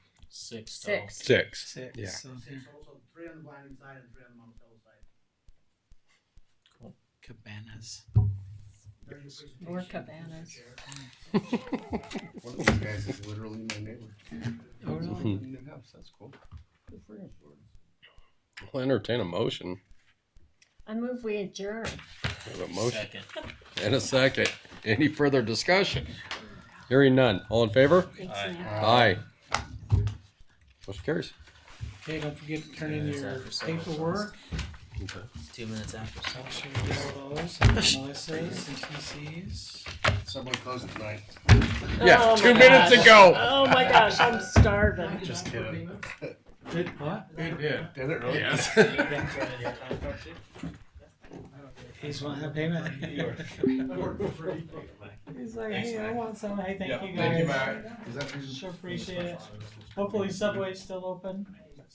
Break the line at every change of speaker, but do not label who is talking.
Six. total.
Six.
Oh, Six.
Six.
Yeah.
So
Six total, three on the blinding side and three on the Mount Hill side.
cabanas.
During the presentation,
More
Mr.
cabanas.
Chair,
One of these guys is literally my neighbor.
Oh, really?
Living in the house. That's cool. Good for him.
I'll entertain a motion.
I move we adjourn.
We have a motion
Second.
and a second. Any further discussion? Hearing none. All in favor?
Thanks,
Aye.
Matt.
Aye. Motion carries.
Okay, don't forget to turn in
Yeah, it's
your
after seven, so it's-
paperwork.
Two minutes after.
Make sure you get all those. and Melissa's and TC's.
Someone closed tonight.
Yeah,
Oh,
two
my
minutes
gosh.
ago.
Oh my gosh, I'm starving.
Just kidding.
Did what?
It did. Did it really?
Yes.
uh,
He's one of payment.
I work for free.
He's like, hey, I want some. Hey, thank
Yeah,
you
thank you,
guys.
Matt. Is that reason?
Sure appreciate it. Hopefully Subway's still open.